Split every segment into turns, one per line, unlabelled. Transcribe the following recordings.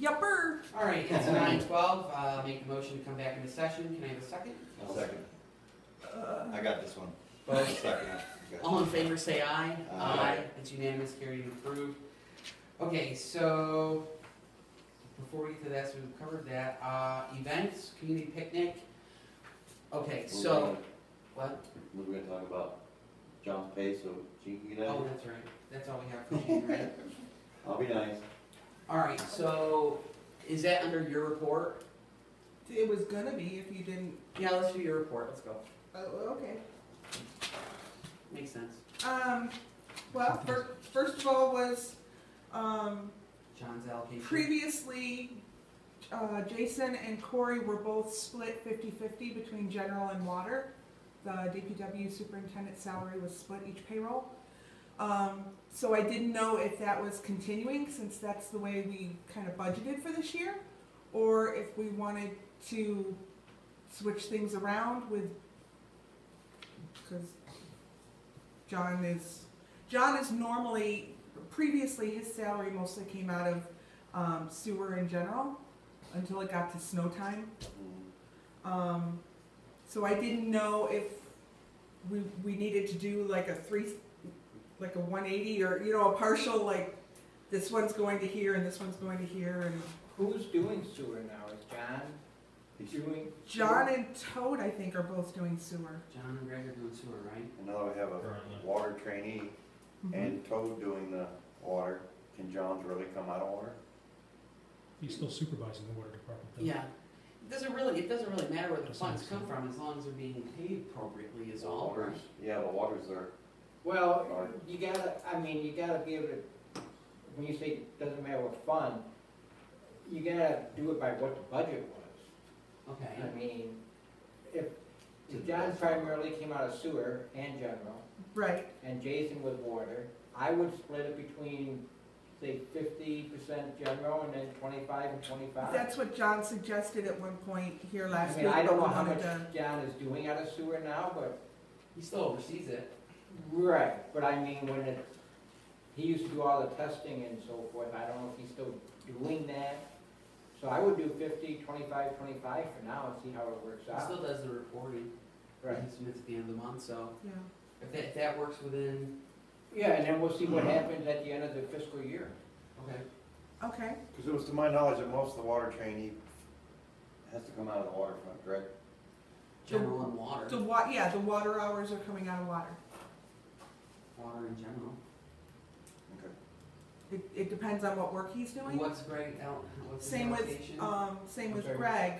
Yupper.
All right, it's nine twelve, uh, make a motion to come back into session, can I have a second?
I'll second. I got this one. I'll
Both.
second it. I got
All in favor, say aye.
Aye.
It's unanimous, carried and approved. Okay, so, before we get to that, so we've covered that, uh, events, community picnic. Okay,
We're
so,
gonna-
what,
We're gonna talk about John's pay, so she can get
oh,
out.
that's right, that's all we have for June, right?
I'll be nice.
All right, so, is that under your report?
It was gonna be if you didn't.
Yeah, let's do your report, let's go,
Oh, okay.
makes sense.
Um, well, fir- first of all was, um,
John's allocation.
previously, uh, Jason and Corey were both split 50/50 between general and water. The DPW superintendent's salary was split each payroll. Um, so I didn't know if that was continuing, since that's the way we kind of budgeted for this year, or if we wanted to switch things around with, because John is, John is normally, previously, his salary mostly came out of um, sewer in general until it got to snow time.
Mm.
Um, so I didn't know if we, we needed to do like a three, like a one eighty or, you know, a partial, like this one's going to here and this one's going to here and
Who's doing sewer now? Is John doing?
John and Toad, I think, are both doing sewer.
John and Greg are doing sewer, right?
And now we have a water trainee and Toad doing the water. Can John's really come out of water?
He's still supervising the water department. though.
Yeah. It doesn't really, it doesn't really matter where the
That's
funds
nice.
come from, as long as they're being paid appropriately is all, right?
Waters- Yeah, the waters are,
Well, you gotta, I mean, you gotta be able to, when you say it doesn't matter what fund, you gotta do it by what the budget was.
Okay,
I mean, if, if John primarily came out of sewer and general,
Right,
and Jason was water, I would split it between, say, fifty percent general and then twenty-five and twenty-five.
that's what John suggested at one point here last
I
week.
mean, I don't know
but we
how
wanted
much
to-
John is doing out of sewer now, but
he still oversees it.
Right, but I mean, when it, he used to do all the testing and so forth, I don't know if he's still doing that. So I would do 50, 25, 25 for now and see how it works
He
out.
still does the reporting.
Ah. Right,
He submits at the end of the month, so
Yeah,
if that, if that works within,
yeah, and then we'll see what happens at the end of the fiscal year.
okay,
okay,
because it was to my knowledge that most of the water trainee has to come out of the waterfront, correct?
general and water,
the wa, yeah, the water hours are coming out of water.
water in general.
Okay.
It, it depends on what work he's doing.
And what's Greg out, what's his
Same with,
allocation?
um, same with
Okay.
Greg.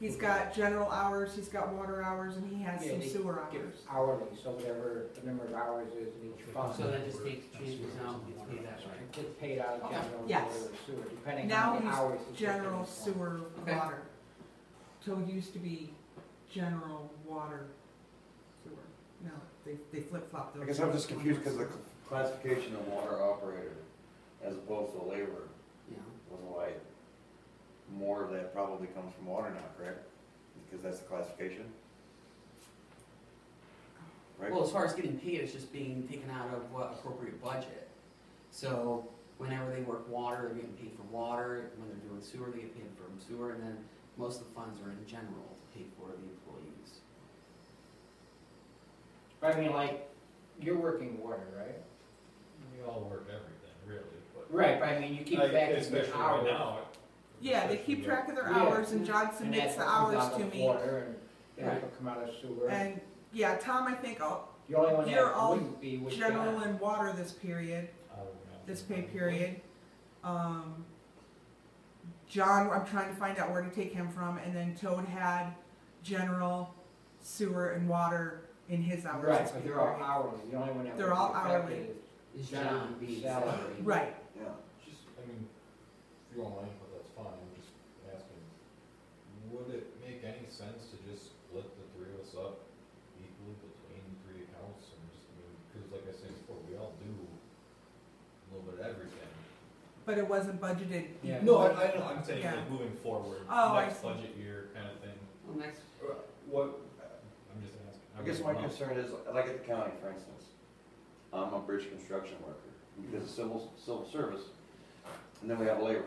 He's got general hours, he's got water hours, and he has
Yeah,
some
they
sewer
Give
hours.
hourly, so whatever the number of hours is in each fund,
So that just takes changes out, it's paid that way.
it's paid out of
Okay.
general or
Yes.
sewer, depending
Now
on the
he's
hours. he's working
General
on.
sewer
Okay.
water. So it used to be general water sewer. No, they, they flip flop those.
I guess I'm just confused because the classification of water operator as opposed to laborer
Yeah,
was why more of that probably comes from water now, correct? Because that's the classification? Right?
well, as far as getting paid, it's just being taken out of what appropriate budget. So whenever they work water, they're getting paid for water, when they're doing sewer, they get paid for sewer, and then most of the funds are in general to pay for the employees.
But I mean, like, you're working water, right?
We all work everything, really, but.
Right, but I mean, you keep
Like,
back in
Especially
the
right
hours.
now.
Yeah, they keep track of their
Yeah.
hours, and John
And
submits
that's
the
what comes
hours
out
to
of
me.
Water and
Right.
that will come out of sewer.
And, yeah, Tom, I think, oh,
The only one
you're all
that wouldn't be would
general
John.
and water this period.
I don't know.
this pay period. Um, John, I'm trying to find out where to take him from, and then Toad had general sewer and water in his hours.
Right,
this
but they're all
period.
hourly, the only one that would
They're
be
all
affected
hourly.
is-
Is John being
Salary.
salaried?
Right,
Yeah.
Just, I mean, if you don't mind, but that's fine, I'm just asking, would it make any sense to just split the three of us up equally between the three accounts and just, I mean, cause like I said before, we all do a little bit of everything.
but it wasn't budgeted.
Yeah.
No, I, I know, I'm saying
Yeah.
like moving forward,
Oh, I
next
see.
budget year kind of thing,
Well, next,
what, I'm just asking.
Uh, I guess my
don't know.
concern is, like at the county, for instance, I'm a bridge construction worker, because of civil, civil service, and then we have labor.